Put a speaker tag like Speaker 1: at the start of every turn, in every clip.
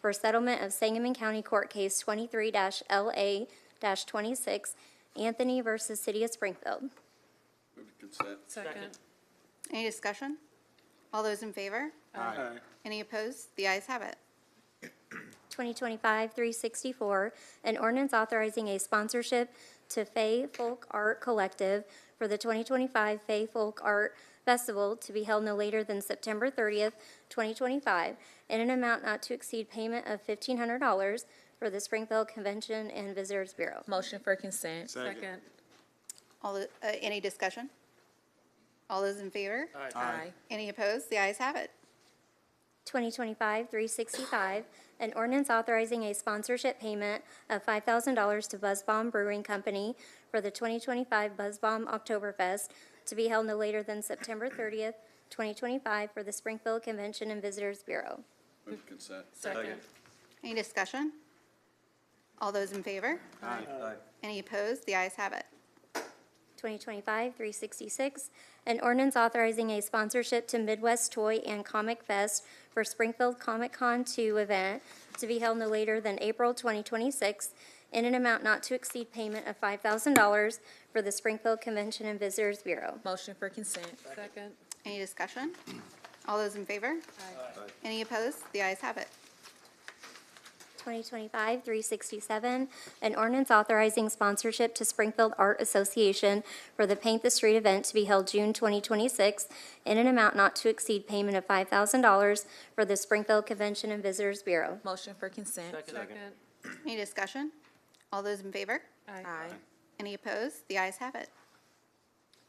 Speaker 1: for settlement of Sangamon County Court Case 23-LA-26, Anthony versus City of Springfield.
Speaker 2: Move to consent.
Speaker 3: Second.
Speaker 4: Any discussion? All those in favor?
Speaker 2: Aye.
Speaker 4: Any opposed? The ayes have it.
Speaker 1: 2025-364, an ordinance authorizing a sponsorship to Fay Folk Art Collective for the 2025 Fay Folk Art Festival to be held no later than September 30th, 2025, in an amount not to exceed payment of $1,500 for the Springfield Convention and Visitors Bureau.
Speaker 5: Motion for consent.
Speaker 3: Second.
Speaker 4: All, the- uh, any discussion? All those in favor?
Speaker 5: Aye.
Speaker 4: Any opposed? The ayes have it.
Speaker 1: 2025-365, an ordinance authorizing a sponsorship payment of $5,000 to Buzz Bomb Brewing Company for the 2025 Buzz Bomb Oktoberfest to be held no later than September 30th, 2025, for the Springfield Convention and Visitors Bureau.
Speaker 2: Move to consent.
Speaker 3: Second.
Speaker 4: Any discussion? All those in favor?
Speaker 2: Aye.
Speaker 4: Any opposed? The ayes have it.
Speaker 1: 2025-366, an ordinance authorizing a sponsorship to Midwest Toy and Comic Fest for Springfield Comic Con 2 event to be held no later than April 2026 in an amount not to exceed payment of $5,000 for the Springfield Convention and Visitors Bureau.
Speaker 5: Motion for consent.
Speaker 3: Second.
Speaker 4: Any discussion? All those in favor? Any opposed? The ayes have it.
Speaker 1: 2025-367, an ordinance authorizing sponsorship to Springfield Art Association for the Paint the Street event to be held June 2026 in an amount not to exceed payment of $5,000 for the Springfield Convention and Visitors Bureau.
Speaker 5: Motion for consent.
Speaker 3: Second.
Speaker 4: Any discussion? All those in favor?
Speaker 5: Aye.
Speaker 4: Any opposed? The ayes have it.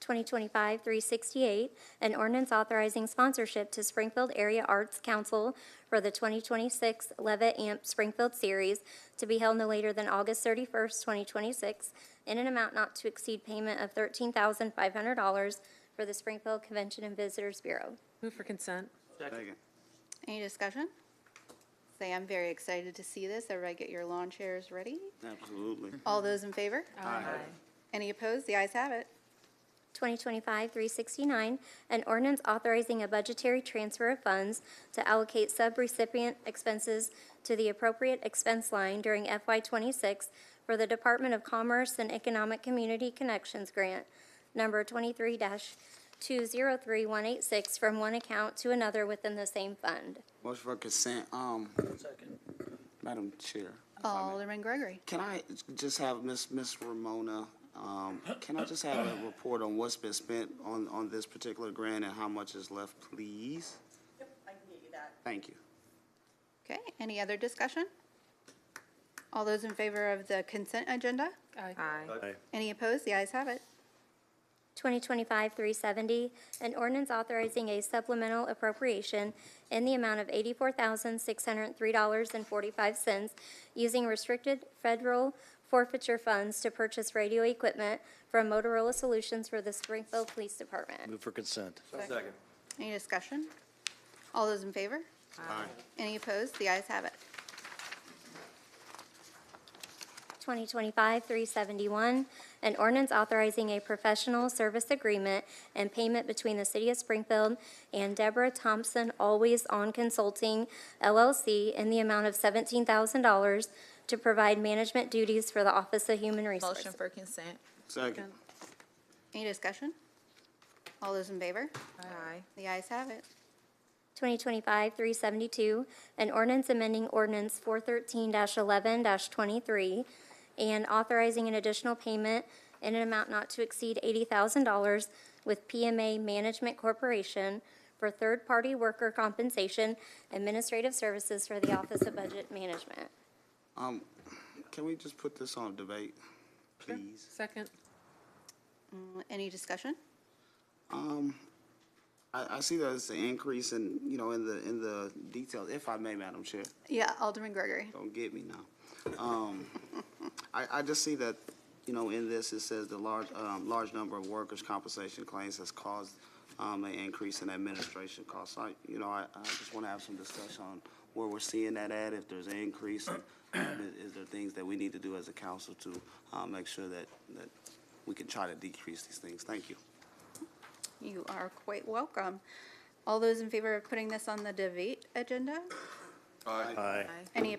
Speaker 1: 2025-368, an ordinance authorizing sponsorship to Springfield Area Arts Council for the 2026 Levitt Amp Springfield Series to be held no later than August 31st, 2026, in an amount not to exceed payment of $13,500 for the Springfield Convention and Visitors Bureau.
Speaker 3: Move for consent.
Speaker 2: Second.
Speaker 4: Any discussion? Say, I'm very excited to see this. Everybody get your lawn chairs ready.
Speaker 2: Absolutely.
Speaker 4: All those in favor? Any opposed? The ayes have it.
Speaker 1: 2025-369, an ordinance authorizing a budgetary transfer of funds to allocate subrecipient expenses to the appropriate expense line during FY26 for the Department of Commerce and Economic Community Connections Grant, number 23-203186, from one account to another within the same fund.
Speaker 6: Motion for consent, um. Madam Chair,
Speaker 4: Alderman Gregory.
Speaker 6: can I just have Miss Miss Ramona, um, can I just have a report on what's been spent on, on this particular grant and how much is left, please? Yep, I can get you that. Thank you.
Speaker 4: Okay, any other discussion? All those in favor of the consent agenda?
Speaker 5: Aye.
Speaker 4: Any opposed? The ayes have it.
Speaker 1: 2025-370, an ordinance authorizing a supplemental appropriation in the amount of $84,603.45 using restricted federal forfeiture funds to purchase radio equipment from Motorola Solutions for the Springfield Police Department.
Speaker 7: Move for consent.
Speaker 2: Second.
Speaker 4: Any discussion? All those in favor? Any opposed? The ayes have it.
Speaker 1: 2025-371, an ordinance authorizing a professional service agreement and payment between the City of Springfield and Deborah Thompson Always On Consulting LLC in the amount of $17,000 to provide management duties for the Office of Human Resources.
Speaker 5: Motion for consent.
Speaker 6: Second.
Speaker 4: Any discussion? All those in favor?
Speaker 5: Aye.
Speaker 4: The ayes have it.
Speaker 1: 2025-372, an ordinance amending ordinance 413-11-23 and authorizing an additional payment in an amount not to exceed $80,000 with PMA Management Corporation for third-party worker compensation administrative services for the Office of Budget Management.
Speaker 6: Um, can we just put this on debate, please?
Speaker 3: Second.
Speaker 4: Mm, Any discussion?
Speaker 6: Um, I, I see that it's an increase in, you know, in the, in the details, if I may, Madam Chair.
Speaker 4: Yeah, Alderman Gregory.
Speaker 6: Don't get me now. Um, I, I just see that, you know, in this, it says the large, um, large number of workers' compensation claims has caused, um, an increase in administration costs. I, you know, I, I just wanna have some discussion on where we're seeing that at, if there's an increase, and um, is, is there things that we need to do as a council to, um, make sure that, that we can try to decrease these things? Thank you.
Speaker 4: You are quite welcome. All those in favor of putting this on the debate agenda?
Speaker 8: Aye.
Speaker 9: Aye.
Speaker 7: Any opposed?